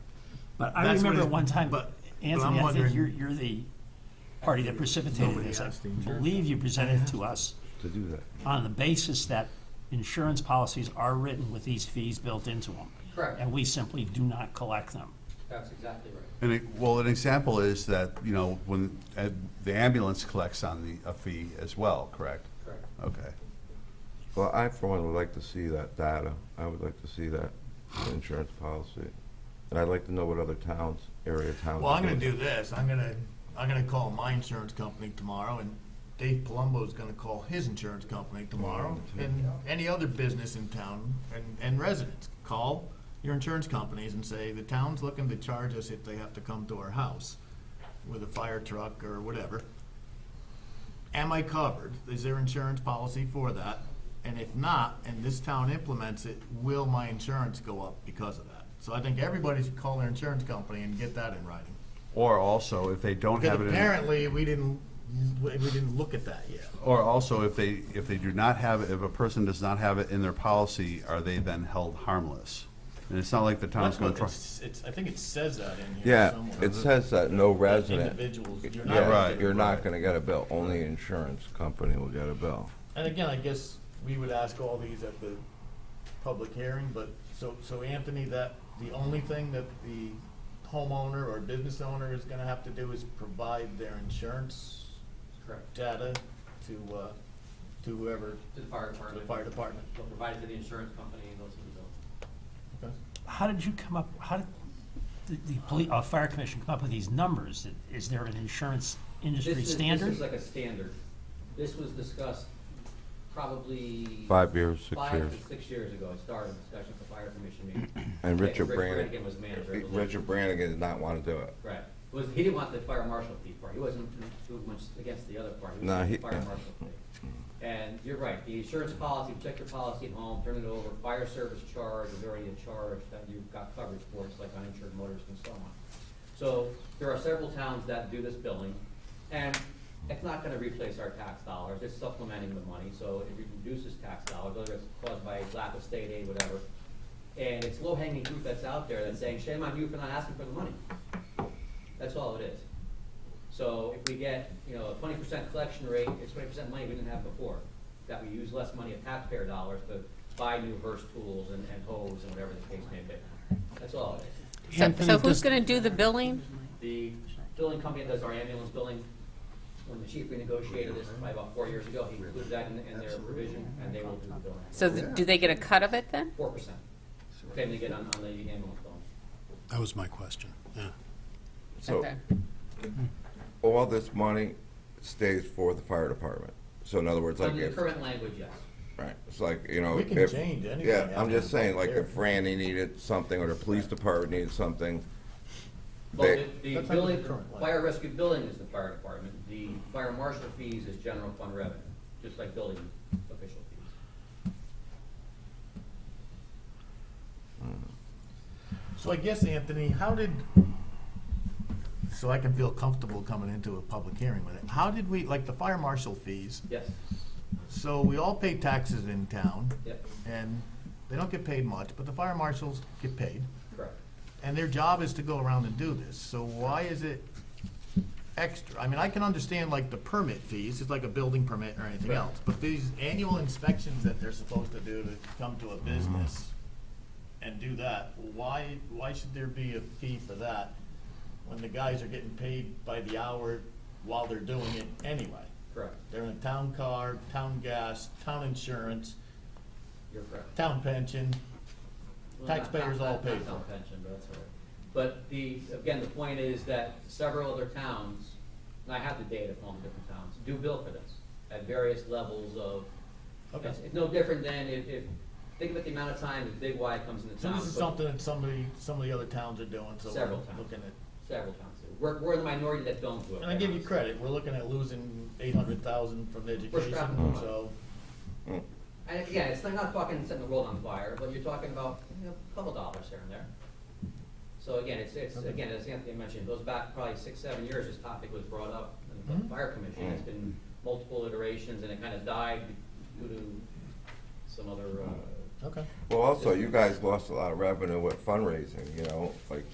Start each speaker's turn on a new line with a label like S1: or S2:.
S1: But I
S2: That's what
S1: remember
S2: it-
S1: one time,
S2: but- but I'm
S1: Anthony, I think
S2: wondering-
S1: you're, you're the party that precipitated
S2: Nobody
S1: this. I
S2: asked the insurance
S1: believe you presented it to us
S3: to do that.
S1: on the basis that insurance policies are written with these fees built into them.
S4: Correct,
S1: And we simply do not collect them.
S4: that's exactly right.
S5: And it, well, an example is that, you know, when uh, the ambulance collects on the, a fee as well, correct?
S4: Correct.
S5: Okay.
S3: Well, I for one would like to see that data. I would like to see that insurance policy. And I'd like to know what other towns, area towns.
S2: Well, I'm
S3: are
S2: gonna do
S3: doing.
S2: this, I'm gonna, I'm gonna call my insurance company tomorrow, and Dave Palumbo's gonna call his insurance company tomorrow, and any other business in town, and, and residents, call your insurance companies and say, the town's looking to charge us if they have to come to our house with a fire truck or whatever. Am I covered? Is there insurance policy for that? And if not, and this town implements it, will my insurance go up because of that? So I think everybody should call their insurance company and get that in writing.
S5: Or also, if they don't
S2: Because
S5: have it in,
S2: apparently, we didn't, we we didn't look at that yet.
S5: or also if they, if they do not have, if a person does not have it in their policy, are they then held harmless? And it's not like the
S2: That's
S5: town's gonna
S2: what
S5: try.
S2: it's, it's, I think it says that in here
S3: Yeah,
S2: somewhere.
S3: it says that no resident.
S2: Individuals, you're
S3: Yeah,
S2: not.
S5: Right.
S3: You're not
S5: right.
S3: gonna get a bill. Only insurance company will get a bill.
S2: And again, I guess we would ask all these at the public hearing, but, so, so Anthony, that, the only thing that the homeowner or business owner is gonna have to do is provide their insurance
S4: Correct.
S2: data to, uh, to whoever,
S4: To the fire
S2: to the
S4: department.
S2: fire department.
S4: They'll provide it to the insurance company and those who don't.
S1: How did you come up, how did the, the poli, uh, fire commission come up with these numbers? Is there an insurance industry
S4: This is- This
S1: standard?
S4: is like a standard. This was discussed probably.
S3: Five years, six
S4: five
S3: years.
S4: to six years ago. It started a discussion at the fire commission meeting.
S3: And
S4: Yeah,
S3: Richard
S4: Rick
S3: Brannigan.
S4: was manager. it was-
S3: Richard Brannigan did not wanna do it.
S4: Right. It Was, he didn't want the fire marshal fee part. He wasn't too much against the other part. He was
S3: No,
S4: against
S3: he-
S4: the fire marshal fee. And you're right, the insurance policy, check your policy at home, turn it over, fire service charge is already a charge that you've got coverage for, it's like uninsured motorists and so on. So there are several towns that do this billing, and it's not gonna replace our tax dollars, it's supplementing the money, so it reduces tax dollars, whether it's caused by lack of state aid, whatever. And it's low hanging fruit that's out there that's saying, shame on you for not asking for the money. That's all it is. So if we get, you know, a twenty percent collection rate, it's twenty percent money we didn't have before, that we use less money of taxpayer dollars to buy new verse tools and, and hose and whatever the case may be. That's all it is.
S6: So,
S1: Anthony,
S6: so who's
S1: does-
S6: gonna do the billing?
S4: The billing company that does our ambulance billing, when the chief renegotiated this probably about four years ago, he included that in, in their provision, and they will do the billing.
S6: So th- do they get a cut of it then?
S4: Four percent, okay, they get on, on the ambulance billing.
S7: That was my question, yeah.
S3: So
S6: Okay.
S3: all this money stays for the fire department. So in other words, like
S4: Under the
S3: if,
S4: current language, yes.
S3: right, it's like, you know.
S2: We can
S3: if-
S2: change anything
S3: Yeah, I'm
S2: after
S3: just saying, like
S2: here.
S3: if Randy needed something or the police department needed something,
S4: Well,
S3: they,
S4: the, the
S2: That's under the
S4: building,
S2: current law.
S4: fire rescue building is the fire department, the fire marshal fees is general fund revenue, just like building official fees.
S2: So I guess, Anthony, how did, so I can feel comfortable coming into a public hearing with it, how did we, like the fire marshal fees,
S4: Yes,
S2: so we all pay taxes in town,
S4: yep,
S2: and they don't get paid much, but the fire marshals get paid,
S4: correct.
S2: and their job is to go around and do this, so why is it extra? I mean, I can understand like the permit fees, it's like a building permit or anything
S4: Right.
S2: else, but these annual inspections that they're supposed to do to come to a business and do that, why, why should there be a fee for that when the guys are getting paid by the hour while they're doing it anyway?
S4: Correct,
S2: They're in a town car, town gas, town insurance,
S4: you're correct.
S2: town pension,
S4: Well, not-
S2: Taxpayers
S4: not-
S2: all
S4: not-
S2: pay
S4: not
S2: for it.
S4: town pension, but that's all right. But the, again, the point is that several other towns, and I have the data from all the different towns, do bill for this at various levels of,
S2: Okay.
S4: it's, it's no different than if, if, think about the amount of time that Big Y comes into
S2: So
S4: town.
S2: this is
S4: but-
S2: something that somebody, some of the other towns are doing, so
S4: Several
S2: we're
S4: towns.
S2: looking at.
S4: Several towns do. We're, we're the minority that don't do it.
S2: And I give you credit, we're looking at losing eight hundred thousand from the
S4: We're
S2: education,
S4: scrapping the money.
S2: so.
S4: And again, it's not- not fucking setting the world on fire, but you're talking about, you know, a couple dollars here and there. So again, it's, it's, again, as Anthony mentioned, it goes back probably six, seven years, this topic was brought up in the
S2: Mhm.
S4: fire commission. It's been multiple iterations and it kind of died due to some other, uh,
S2: Okay.
S3: well, also, you guys lost a lot of revenue with fundraising, you know, like